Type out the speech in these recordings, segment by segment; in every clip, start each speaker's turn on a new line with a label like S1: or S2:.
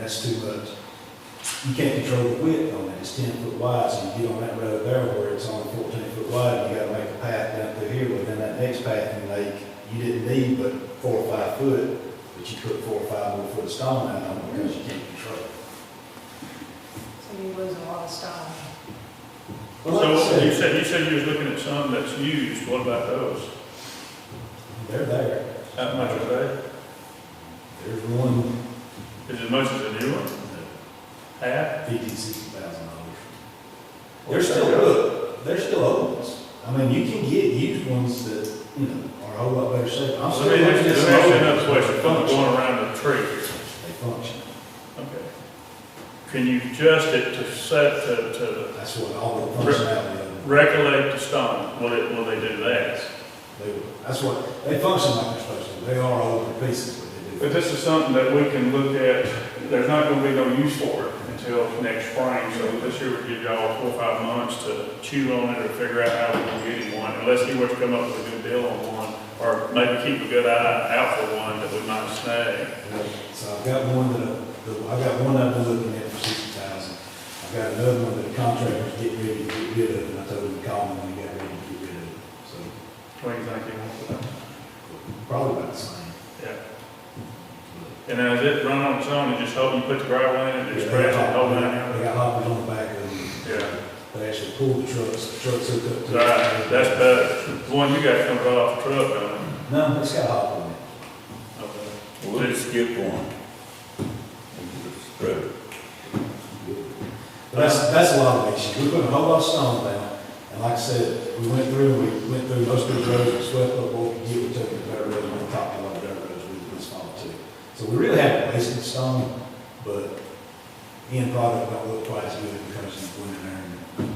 S1: that's too much. You can't control the width on it, it's ten foot wide, so you get on that road there where it's only fourteen foot wide, you gotta make a path down through here, well, then that next path you make, you didn't need but four or five foot, but you put four or five more foot of stone down on it because you can't control it.
S2: So you lose a lot of style.
S1: Well, like I
S3: So you
S1: said,
S3: said, you said you was looking at some that's used, what about those?
S1: they're there,
S3: How much are they?
S1: there's one
S3: Is it as much as a new one? Half?
S1: fifty, sixty thousand dollars. They're still, look, they're still old ones. I mean, you can get used ones that, you know, are a whole lot better shape. I'm
S3: So
S1: still
S3: let me
S1: looking at
S3: just
S1: some
S3: ask you
S1: old
S3: another
S1: ones.
S3: question,
S1: They
S3: Going-
S1: function.
S3: going around the tree.
S1: They function.
S3: Okay. Can you adjust it to set, to, to
S1: That's what all the functionality of them,
S3: recollect the stone? Will it, will they do that?
S1: they, were- that's what, they function like they're supposed to. They are older pieces, but they
S3: But
S1: do.
S3: this is something that we can look at, there's not gonna be no use for it until next spring, so this year we give y'all four, or five months to chew on it or figure out how we can get him one, and let's see what's come up with a good deal on one, or maybe keep a good eye out for one that we might snag.
S1: So I've got one that, I- the- I've got one I've been looking at for sixty thousand. I've got another one that the contractor's getting ready to get rid of, and I told him to call me when he got ready to get rid of it. So
S3: What do you think you want for that?
S1: probably about the same.
S3: Yeah, and now is it run on its own, and just hope you put the gravel in it, just spread it, hold it
S1: They
S3: out?
S1: got hoppers on the back of them.
S3: Yeah,
S1: They actually pull the trucks, the trucks hook up to. it.
S3: right, that's better, the one you got comes right off the truck, don't
S1: No, it's got a hop on it.
S3: it?
S4: We'll just skip one. Spread it.
S1: But that's, that's a lot of issues. We put a whole lot of stone down, and like I said, we went through, we went through most of the roads, we swept up what we could, we took the dirt roads, we topped a lot of dirt roads, we put stone too. So we really haven't wasted stone, but the end product don't look quite as good because it's going in there.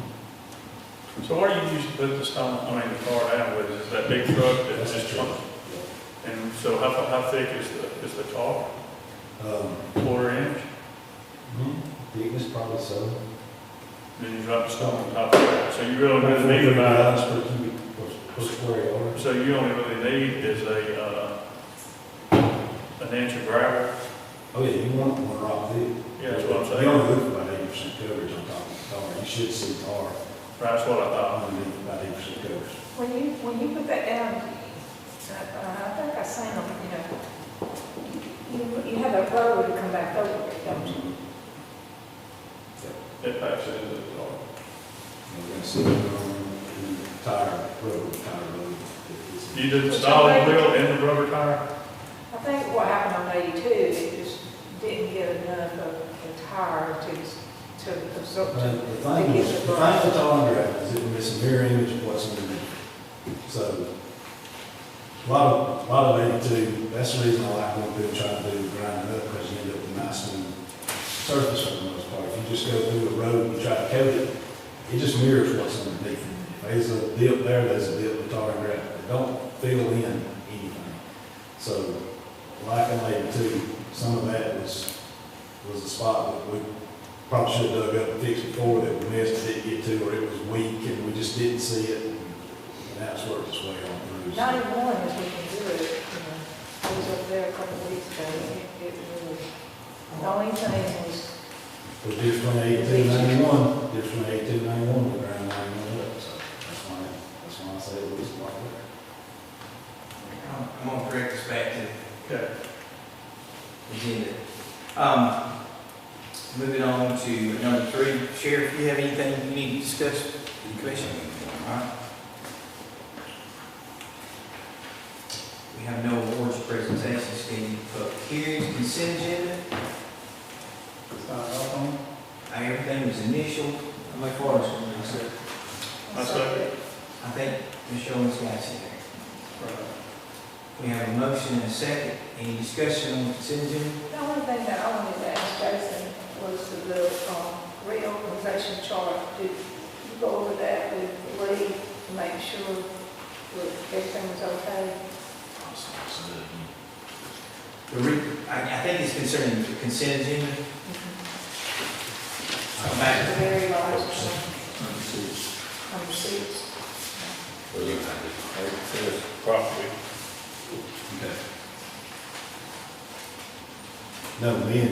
S3: So what do you use to put the stone, I mean, the tar down with, is that big truck that
S1: That's
S3: just,
S1: true.
S3: and so how, how thick is the, is the tar,
S1: Um, hmm?
S3: quarter inch?
S1: thickness probably so.
S3: Then you drop the stone on top of that, so you really only need about,
S1: Per cubic, per- per square yard.
S3: so you only really need is a, uh, an inch of gravel,
S1: Oh, yeah, you want one rock thick.
S3: yeah, that's what I'm
S1: You
S3: saying,
S1: only look for about eighty percent coverage on top of the tar. You should see tar
S3: that's what I thought.
S1: underneath about eighty percent coverage.
S2: When you, when you put that down, I, I think I seen them, you know, you, you have that road to come back over it, don't you?
S3: It packs it into the tar.
S1: We're gonna see it on the tire road, tire road.
S3: You did the solid wheel and the rubber tire?
S2: I think what happened on eighty-two, it just didn't get enough of the tire to, to absorb.
S1: But The thing is, the thing with tar and gravel is it will miss a mirror image of what's underneath. So, a lot of, a lot of eighty-two, that's the reason I like going through and trying to do grind it up, because you end up with a nice smooth surface for the most part. If you just go through a road and try to coat it, it just mirrors what's underneath. If There's a dip there, there's a dip with tar and gravel, it don't fill in anything. So, like I laid too, some of that was, was a spot that we probably should have dug up and fixed before that we missed, didn't get to, or it was weak and we just didn't see it. And that's worked its way on through. so.
S2: Ninety-one is we can do it, you know, I was up there a couple of weeks ago, and it, it really, the only thing was,
S1: But difference between eighteen ninety-one, difference between eighteen ninety-one, the ground ninety-one up, so that's why, that's why I say it was like that.
S5: I'm- I'm gonna correct this back to
S3: Okay.
S5: the agenda. Um, moving on to number three, Sheriff, do you have anything you need to discuss with the commission? All right. We have no awards presentations scheduled for public hearings, consent agenda. Uh, Everything was initial, I'm like, what is it?
S3: I second.
S5: I think Michelle's got it there. We have a motion and a second. Any discussion on the consent agenda?
S2: The only thing that I wanted to ask Jason was the, um, reorganization chart, did you go over that with Lee to make sure that everything was okay?
S1: So, so that you-
S5: The re, I, I think it's concerning the consent agenda. Come
S2: The
S5: back.
S2: very large, one, number six.
S3: Property.
S1: No, me and